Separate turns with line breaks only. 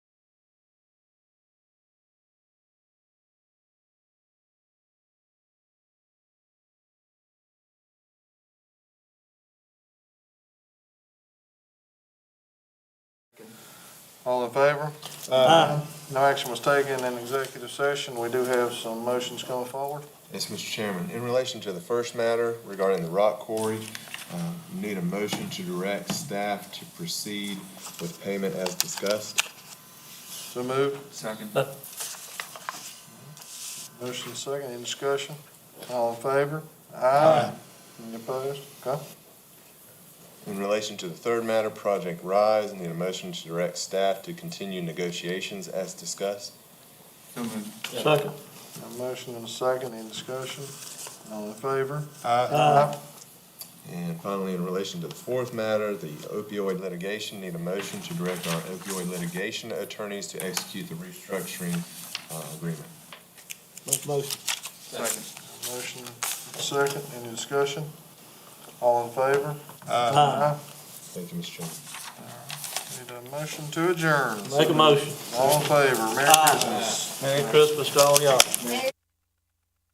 All in favor?
Uh,
No action was taken in executive session. We do have some motions coming forward.
Yes, Mr. Chairman, in relation to the first matter regarding the rock quarry, uh, need a motion to direct staff to proceed with payment as discussed.
So moved.
Second.
Motion second. Any discussion? All in favor? Aye. Any opposed? Okay.
In relation to the third matter, Project Rise, need a motion to direct staff to continue negotiations as discussed.
So moved.
Second.
Got a motion and a second. Any discussion? All in favor?
And finally, in relation to the fourth matter, the opioid litigation, need a motion to direct our opioid litigation attorneys to execute the restructuring uh, agreement.
Make motion.
Second.
Motion second. Any discussion? All in favor? Uh.
Aye.
Thank you, Mr. Chairman.
Need a motion to adjourn.
Make a motion.
All in favor? Merry Christmas.
Merry Christmas to all y'all.